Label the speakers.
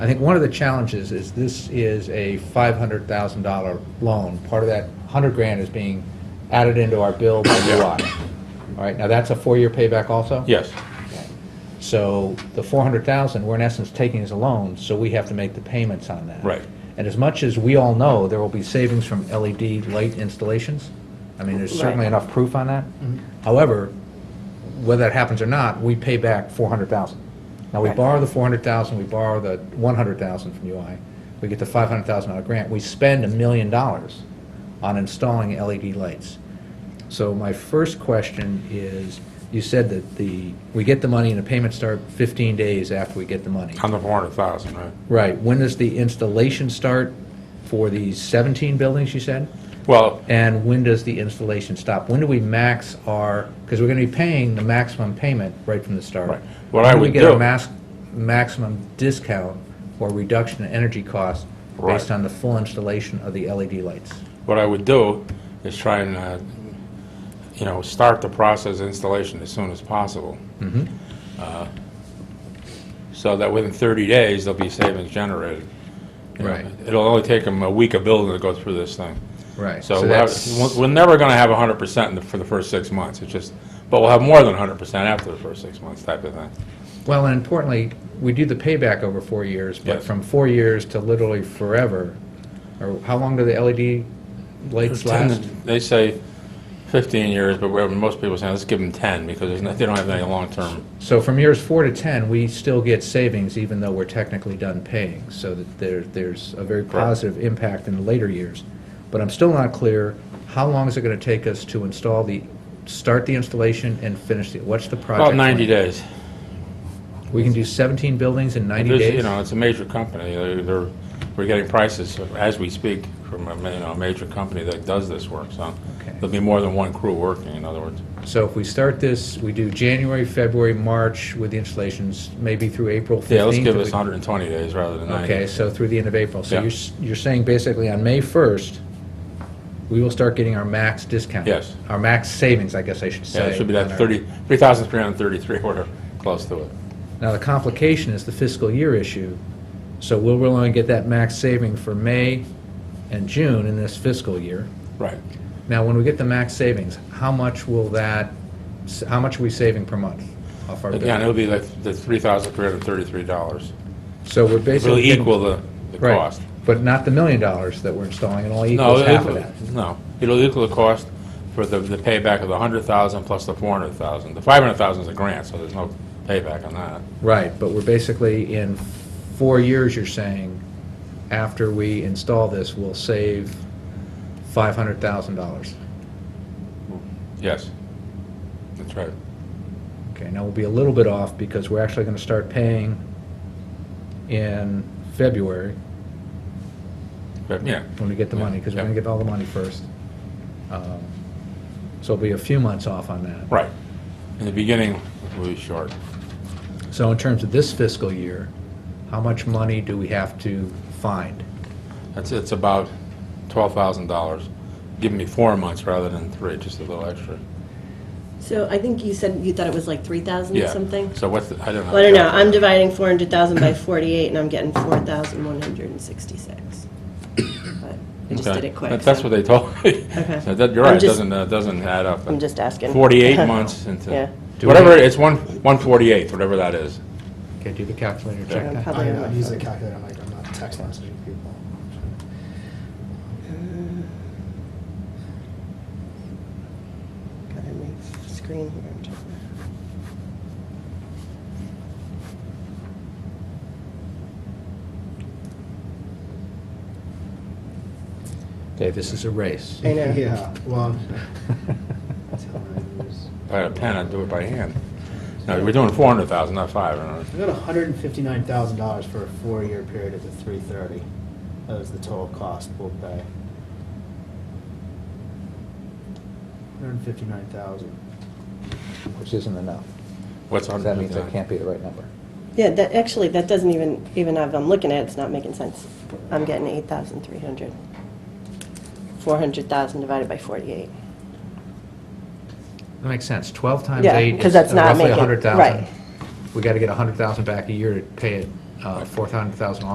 Speaker 1: I think one of the challenges is this is a $500,000 loan. Part of that 100 grand is being added into our bill by
Speaker 2: Yeah.
Speaker 1: UI. All right, now that's a four-year payback also?
Speaker 2: Yes,
Speaker 1: So the 400,000, we're in essence taking as a loan, so we have to make the payments on that.
Speaker 2: Right.
Speaker 1: And as much as we all know, there will be savings from LED light installations. I mean, there's certainly
Speaker 3: Right.
Speaker 1: enough proof on that. However, whether that happens or not, we pay back 400,000. Now, we
Speaker 3: Right.
Speaker 1: borrow the 400,000, we borrow the 100,000 from UI, we get the 500,000 dollar grant, we spend a million dollars on installing LED lights. So my first question is, you said that the, we get the money and the payments start 15 days after we get the money.
Speaker 2: on the 400,000, right?
Speaker 1: Right, when does the installation start for these 17 buildings, you said?
Speaker 2: Well,
Speaker 1: And when does the installation stop? When do we max our, because we're going to be paying the maximum payment right from the start.
Speaker 2: Right. What I
Speaker 1: When do
Speaker 2: would
Speaker 1: we get a
Speaker 2: do-
Speaker 1: mas- maximum discount or reduction in energy costs based
Speaker 2: Right.
Speaker 1: on the full installation of the LED lights?
Speaker 2: what I would do is try and, uh, you know, start the process of installation as soon as possible. Uh, So that within 30 days, there'll be savings generated. You know,
Speaker 1: Right.
Speaker 2: It'll only take them a week of building to go through this thing.
Speaker 1: Right.
Speaker 2: So we'll have- we're we're never going to have 100% in the- for the first six months, it's just, but we'll have more than 100% after the first six months type of thing.
Speaker 1: Well, and importantly, we do the payback over four years, but
Speaker 2: Yes.
Speaker 1: from four years to literally forever, or how long do the LED lights last?
Speaker 2: They say 15 years, but we're- most people say, let's give them 10, because there's no- they don't have any long-term.
Speaker 1: So from years four to 10, we still get savings even though we're technically done paying, so that there, there's a very
Speaker 2: Correct.
Speaker 1: positive impact in the later years. But I'm still not clear, how long is it going to take us to install the, start the installation and finish it? What's the project?
Speaker 2: About 90
Speaker 1: plan?
Speaker 2: days.
Speaker 1: We can do 17 buildings in 90
Speaker 2: There's-
Speaker 1: days?
Speaker 2: You know, it's a major company. They're- They're, we're getting prices as we speak from a, ma- you know, a major company that does this work, so
Speaker 1: Okay.
Speaker 2: there'll be more than one crew working, in other words.
Speaker 1: So if we start this, we do January, February, March with the installations, maybe through April 15th?
Speaker 2: Yeah, let's give
Speaker 1: if
Speaker 2: us
Speaker 1: we-
Speaker 2: 120 days rather than 90.
Speaker 1: Okay, so through the end of April. So
Speaker 2: Yeah.
Speaker 1: you're, s- you're saying basically on May 1st, we will start getting our max discount?
Speaker 2: Yes.
Speaker 1: Our max savings, I guess I should say.
Speaker 2: Yeah, it should be
Speaker 1: on
Speaker 2: that
Speaker 1: our-
Speaker 2: 30, 3,333, whatever, close to it.
Speaker 1: Now, the complication is the fiscal year issue, so we'll really only get that max saving for May and June in this fiscal year.
Speaker 2: Right.
Speaker 1: Now, when we get the max savings, how much will that, s- how much are we saving per month off our bill?
Speaker 2: Again, it'll be like the $3,333.
Speaker 1: So we're basically...
Speaker 2: It'll equal the, the
Speaker 1: Right,
Speaker 2: cost.
Speaker 1: But not the million dollars that we're installing, it only
Speaker 2: No,
Speaker 1: equals half of
Speaker 2: it'll-
Speaker 1: that.
Speaker 2: No, it'll equal the cost for the, the payback of the hundred thousand plus the four hundred thousand. The five hundred thousand is a grant, so there's no payback on that.
Speaker 1: Right, but we're basically in four years, you're saying, after we install this, we'll save five hundred thousand dollars.
Speaker 2: Yes. That's right.
Speaker 1: Okay, now we'll be a little bit off because we're actually gonna start paying in February
Speaker 2: But, yeah,
Speaker 1: when we get the money, because we're gonna get all the money first. Um, So we'll be a few months off on that.
Speaker 2: right. In the beginning, we'll be short.
Speaker 1: So in terms of this fiscal year, how much money do we have to find?
Speaker 2: That's, it's about twelve thousand dollars, giving me four months rather than three, just a little extra.
Speaker 3: So I think you said you thought it was like 3,000 or
Speaker 2: Yeah.
Speaker 3: something?
Speaker 2: So what's, the- I don't know.
Speaker 3: Well, I don't know, I'm dividing 400,000 by 48, and I'm getting 4,166. But I just
Speaker 2: Okay.
Speaker 3: did it quick.
Speaker 2: That- That's
Speaker 3: so
Speaker 2: what they told me.
Speaker 3: Okay.
Speaker 2: So that- You're
Speaker 3: I'm
Speaker 2: right, it
Speaker 3: just-
Speaker 2: doesn't, uh, doesn't add up.
Speaker 3: I'm just asking.
Speaker 2: 48 months into,
Speaker 3: Yeah.
Speaker 1: Do
Speaker 2: whatever,
Speaker 1: we-
Speaker 2: it's one 148, whatever that is.
Speaker 1: Okay, do the calculator
Speaker 3: Yeah,
Speaker 1: check
Speaker 3: I'm
Speaker 1: that?
Speaker 3: probably
Speaker 4: I
Speaker 3: on my
Speaker 4: know,
Speaker 3: phone.
Speaker 4: use a calculator, I'm like, I'm not text messaging people.
Speaker 3: Got it on my screen here. I'm checking.
Speaker 1: Okay, this is a race.
Speaker 3: I know.
Speaker 4: Yeah, well.
Speaker 2: If I had a pen, I'd do it by hand. No, we're doing 400,000, not 5. I don't
Speaker 4: I
Speaker 2: know.
Speaker 4: got hundred and fifty-nine thousand dollars for a four-year period at the three thirty. That was the total cost we'll pay. Hundred and fifty-nine thousand.
Speaker 1: Which isn't enough.
Speaker 2: What's
Speaker 1: So That means that
Speaker 2: 159?
Speaker 1: can't be the right number.
Speaker 3: Yeah, that, actually, that doesn't even, even if I'm looking at it, it's not making sense. I'm getting 8,300. 400,000 divided by 48.
Speaker 1: That makes sense. Twelve times
Speaker 3: Yeah,
Speaker 1: eight
Speaker 3: 'cause
Speaker 1: is
Speaker 3: that's not
Speaker 1: roughly a
Speaker 3: making-
Speaker 1: hundred thousand.
Speaker 3: right.
Speaker 1: We gotta get a hundred thousand back a year to pay it, uh, four hundred thousand